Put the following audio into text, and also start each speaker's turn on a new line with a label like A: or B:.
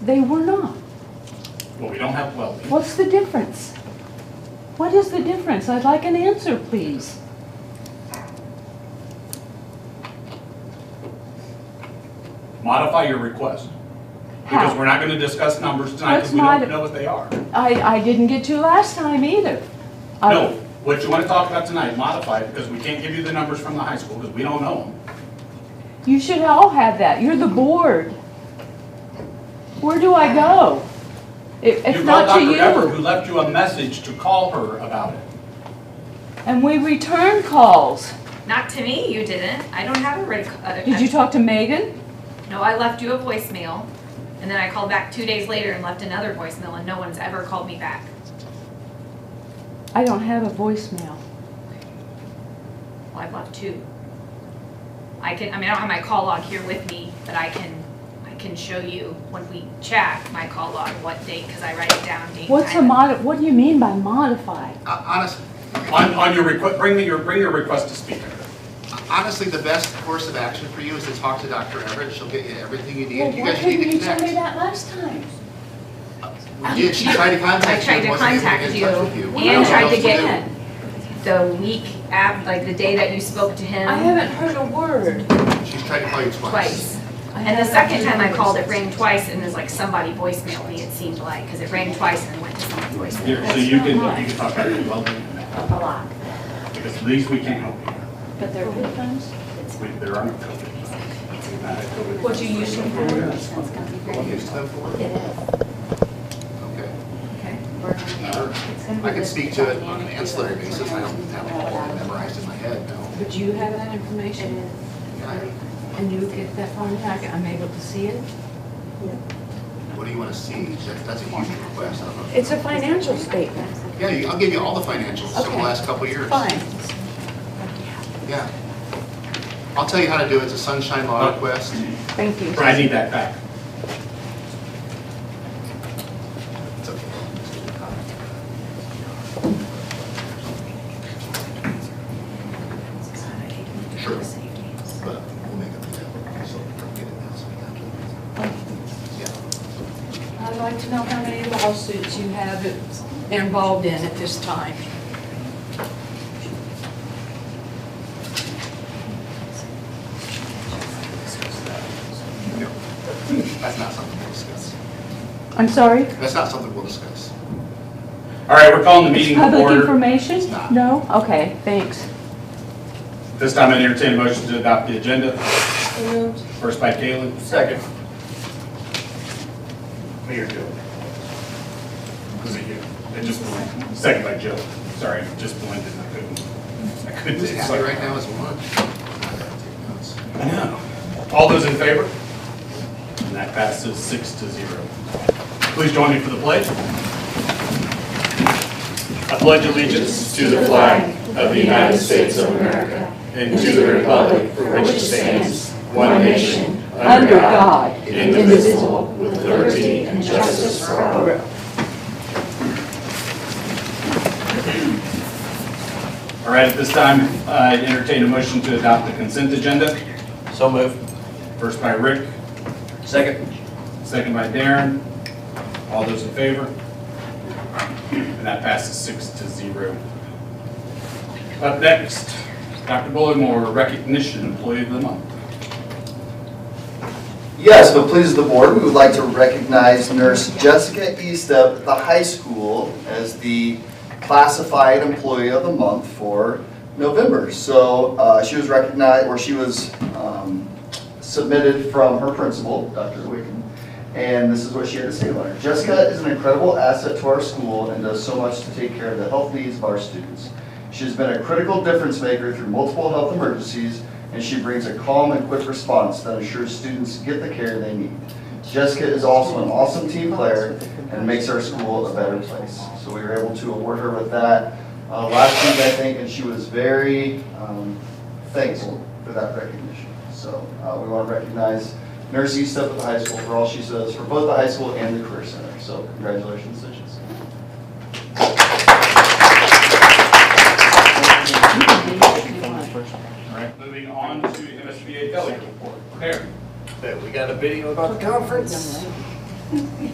A: They were not.
B: Well, we don't have welding.
A: What's the difference? What is the difference? I'd like an answer, please.
B: Modify your request. Because we're
A: How?
B: not going to discuss numbers tonight because we
A: Let's
B: don't
A: modi-
B: know what they are.
A: I, I didn't get to last time either. I-
B: No, what you want to talk about tonight, modify it because we can't give you the numbers from the high school because we don't know them.
A: You should all have that. You're the board. Where do I go? If, if
B: You
A: not to
B: called Dr. Ever,
A: you.
B: who left you a message to call her about it.
A: And we return calls.
C: Not to me, you didn't. I don't have a red. c- uh,
A: Did you talk to Megan?
C: No, I left you a voicemail, and then I called back two days later and left another voicemail, and no one's ever called me back.
A: I don't have a voicemail.
C: Well, I've left two. I can, I mean, I don't have my call log here with me, but I can, I can show you when we chat my call log, what date, because I write it down, date.
A: What's a
C: time.
A: mod, what do you mean by modified?
D: Uh, Honest,
B: On, on your request, bring me your, bring your request to speak.
D: honestly, the best course of action for you is to talk to Dr. Everett. She'll get you everything you
A: Well,
D: need. You
A: why
D: guys need
A: couldn't
D: to
A: you tell me
D: connect.
A: that last time?
D: You did. She tried to
C: I
D: contact you.
C: tried
D: and
C: to
D: wasn't able
C: contact
D: to
C: you
D: get in touch with you.
C: and
D: We don't know
C: tried
D: what
C: to
D: else
C: get
D: do.
C: the week af, like the day that you spoke to him.
A: I haven't heard a word.
D: She's tried to call you twice.
C: Twice. And the second time I called, it rang twice, and there's like somebody voicemail me, it seemed like, because it rang twice and it went to someone's voicemail.
B: Here, So you can, you can talk about your welding and that,
C: A lot.
B: because at least we can't help you.
A: But there are times.
B: We- There are no COVID.
E: What you usually have is that's gonna be
D: Well,
E: great.
D: here's the floor.
E: It is.
D: Okay.
C: Okay.
E: We're gonna- it's gonna be
D: I can
E: this
D: speak to it on an
E: dynamic
D: ancillary
E: duo.
D: basis. I don't have it all memorized in my head, no.
E: But you have that information
D: Yeah.
E: and you get that far, I can- I'm able to see it?
D: What do you want to see? That- That's a huge request. I don't know.
F: It's a financial statement,
D: Yeah, you- I'll give you all the financials over the
F: Okay.
D: last couple of years.
F: fine.
D: Yeah. I'll tell you how to do it. It's a sunshine law request.
F: Thank you.
B: But I need that back.
D: It's okay. Sure. But we'll make up the deal. So we'll get it now so we got it. Yeah.
E: I'd like to know how many lawsuits you have involved in at this time.
D: That's not something we'll discuss.
A: I'm sorry?
D: That's not something we'll discuss.
B: All right, we're calling the meeting to
A: Public
B: order.
A: information?
D: It's not.
A: No? Okay, thanks.
B: This time I entertain a motion to adopt the agenda. First by Galen. Second. Mayor Joe. Was it you? It just blended. Second by Joe. Sorry, it just blended. I couldn't. I couldn't.
D: Who's
B: it's
D: happy
B: like-
D: right now is one.
B: I know. All those in favor? And that passes six to zero. Please join me for the pledge. I pledge allegiance to the flag of the United States of America and to the republic for which it stands, one nation,
A: Under
B: Uh,
A: God.
B: indivisible, with liberty and justice for all. All right, at this time, I entertain a motion to adopt the consent agenda.
G: So move.
B: First by Rick,
G: Second.
B: Second by Darren. All those in favor? And that passes six to zero. Up next, Dr. Bullimore, recognition employee of the month.
H: Yes, but please the board, we would like to recognize nurse Jessica East of the high school as the classified employee of the month for November. So uh, she was recognized, or she was um, submitted from her principal, Dr. Wicken, and this is what she had to say about her. Jessica is an incredible asset to our school and does so much to take care of the health needs of our students. She has been a critical difference maker through multiple health emergencies, and she brings a calm and quick response that ensures students get the care they need. Jessica is also an awesome team player and makes our school a better place. So we were able to award her with that uh, last week, I think, and she was very um, thankful for that recognition. So uh, we want to recognize Nurse East up at the high school for all she does for both the high school and the Career Center. So congratulations, to Jessica.
B: All right, moving on to MSBA delegate report. There.
G: We got a video about the conference.